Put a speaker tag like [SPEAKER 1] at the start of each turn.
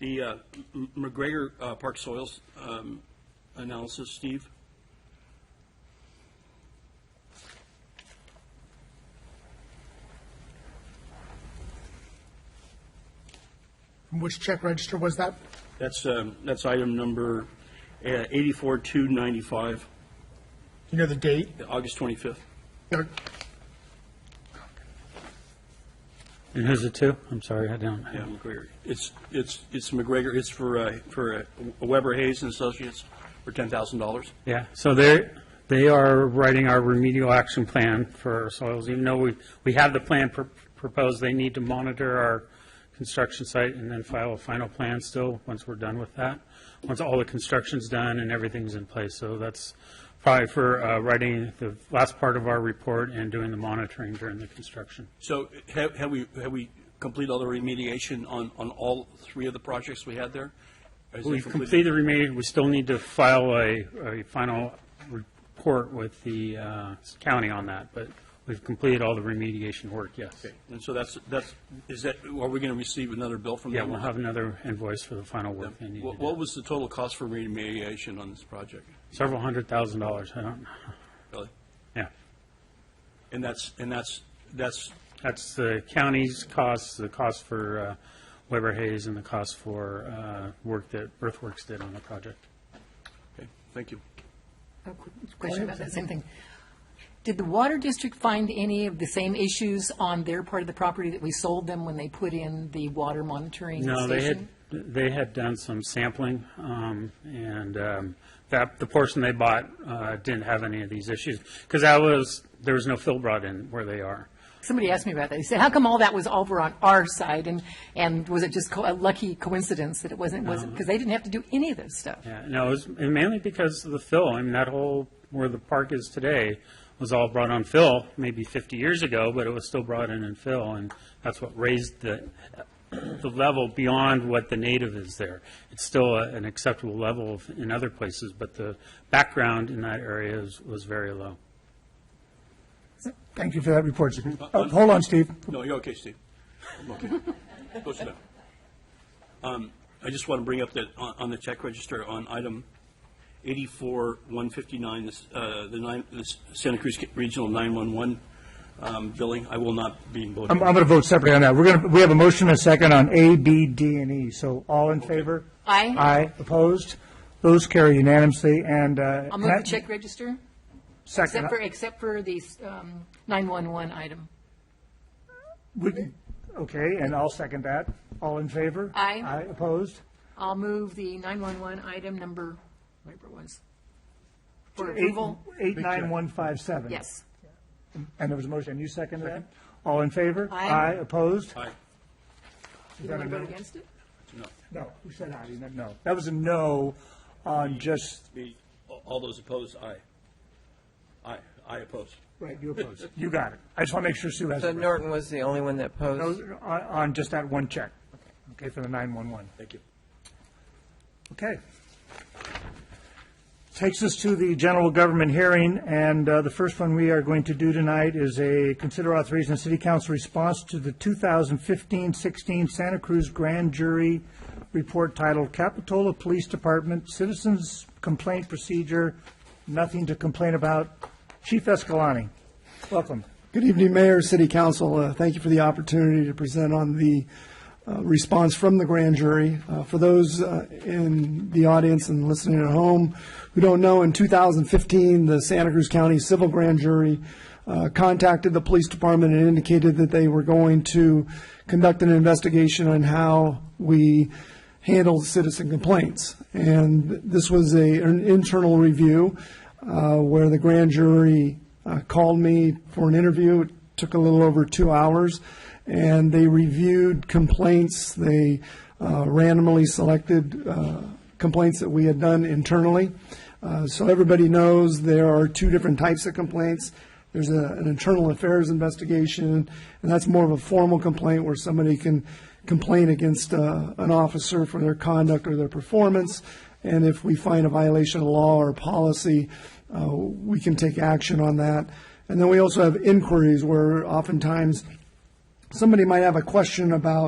[SPEAKER 1] The uh, M- McGregor uh, Park soils um, analysis, Steve?
[SPEAKER 2] Which check register was that?
[SPEAKER 1] That's, um, that's item number uh, 84295,
[SPEAKER 2] Do you know the date?
[SPEAKER 1] August 25th.
[SPEAKER 2] No,
[SPEAKER 3] And who's it to? I'm sorry, I don't.
[SPEAKER 1] Yeah, McGregor. It's, it's, it's McGregor, it's for, uh, for uh, Weber Hayes and Associates for $10,000.
[SPEAKER 3] Yeah, so they're, they are writing our remedial action plan for our soils, even though we, we have the plan pr- proposed, they need to monitor our construction site and then file a final plan still, once we're done with that, once all the construction's done and everything's in place. So that's probably for uh, writing the last part of our report and doing the monitoring during the construction.
[SPEAKER 1] So have have we, have we completed all the remediation on, on all three of the projects we had there? Is it
[SPEAKER 3] We've completed remaining, we still need to file a, a final report with the uh, county on that, but we've completed all the remediation work, yes.
[SPEAKER 1] And so that's, that's, is that, are we going to receive another bill from
[SPEAKER 3] Yeah,
[SPEAKER 1] them?
[SPEAKER 3] we'll have another invoice for the final work they need to
[SPEAKER 1] What
[SPEAKER 3] do.
[SPEAKER 1] what was the total cost for remediation on this project?
[SPEAKER 3] Several hundred thousand dollars, I don't,
[SPEAKER 1] Really?
[SPEAKER 3] yeah.
[SPEAKER 1] And that's, and that's, that's,
[SPEAKER 3] That's the county's costs, the cost for uh, Weber Hayes and the cost for uh, work that Earthworks did on the project.
[SPEAKER 1] okay, thank you.
[SPEAKER 4] A quick Question about that same thing. Did the water district find any of the same issues on their part of the property that we sold them when they put in the water monitoring
[SPEAKER 3] No, they had,
[SPEAKER 4] station?
[SPEAKER 3] they had done some sampling, um, and um, that, the portion they bought uh, didn't have any of these issues, because that was, there was no fill brought in where they are.
[SPEAKER 4] Somebody asked me about that. They said, how come all that was over on our side? And, and was it just co- a lucky coincidence that it wasn't, wasn't, because they didn't have to do any of this stuff?
[SPEAKER 3] Yeah, no, it was and mainly because of the fill. I mean, that whole, where the park is today, was all brought on fill maybe 50 years ago, but it was still brought in in fill, and that's what raised the, the level beyond what the native is there. It's still a- an acceptable level of- in other places, but the background in that area is- was very low.
[SPEAKER 2] Thank you for that report.
[SPEAKER 1] Uh,
[SPEAKER 2] Oh, Hold on, Steve.
[SPEAKER 1] No, you're okay, Steve. I'm okay. Go sit down. Um, I just want to bring up that on, on the check register on item eighty-four, one fifty-nine, this, uh, the nine, this Santa Cruz Regional nine-one-one, um, billing. I will not be
[SPEAKER 2] I'm,
[SPEAKER 1] voting.
[SPEAKER 2] I'm going to vote separately on that. We're going to, we have a motion and a second on A, B, D, and E. So all in favor?
[SPEAKER 4] Aye.
[SPEAKER 2] Aye. Opposed? Those carry unanimously and, uh.
[SPEAKER 4] I'll move the check register,
[SPEAKER 2] Second. uh,
[SPEAKER 4] except for, except for the um, 911 item.
[SPEAKER 2] We can- Okay, and I'll second that. All in favor?
[SPEAKER 4] Aye.
[SPEAKER 2] Aye. Opposed?
[SPEAKER 4] I'll move the 911 item number, whatever it was, for approval.
[SPEAKER 2] Eight, nine, one, five, seven.
[SPEAKER 4] Yes.
[SPEAKER 2] And there was a motion. You seconded that? All in favor?
[SPEAKER 4] Aye.
[SPEAKER 2] Opposed?
[SPEAKER 1] Aye.
[SPEAKER 4] You want to vote against it?
[SPEAKER 1] No.
[SPEAKER 2] No. Who said aye? You meant No. That was a no on just
[SPEAKER 1] The- All those opposed, aye. Aye, I oppose.
[SPEAKER 2] Right, you oppose. You got it. I just want to make sure Sue has
[SPEAKER 5] So
[SPEAKER 2] it right.
[SPEAKER 5] Norton was the only one that posed.
[SPEAKER 2] No, On, on just that one check. Okay, for the 911.
[SPEAKER 1] Thank you.
[SPEAKER 2] Okay. Takes us to the general government hearing, and uh, the first one we are going to do tonight is a consider authorization of city council response to the 2015-16 Santa Cruz Grand Jury Report titled Capitola Police Department Citizens Complaint Procedure, Nothing to Complain About. Chief Escalani, welcome.
[SPEAKER 6] Good evening, Mayor, City Council. Uh, Thank you for the opportunity to present on the uh, response from the grand jury. Uh, For those uh, in the audience and listening at home who don't know, in 2015, the Santa Cruz County Civil Grand Jury uh, contacted the police department and indicated that they were going to conduct an investigation on how we handled citizen complaints. And this was a, an internal review uh, where the grand jury uh, called me for an interview. It took a little over two hours, and they reviewed complaints. They uh, randomly selected uh, complaints that we had done internally. Uh, so everybody knows there are two different types of complaints. There's a, an internal affairs investigation, and that's more of a formal complaint where somebody can complain against uh, an officer for their conduct or their performance. And if we find a violation of law or policy, uh, we can take action on that. And then we also have inquiries where oftentimes somebody might have a question about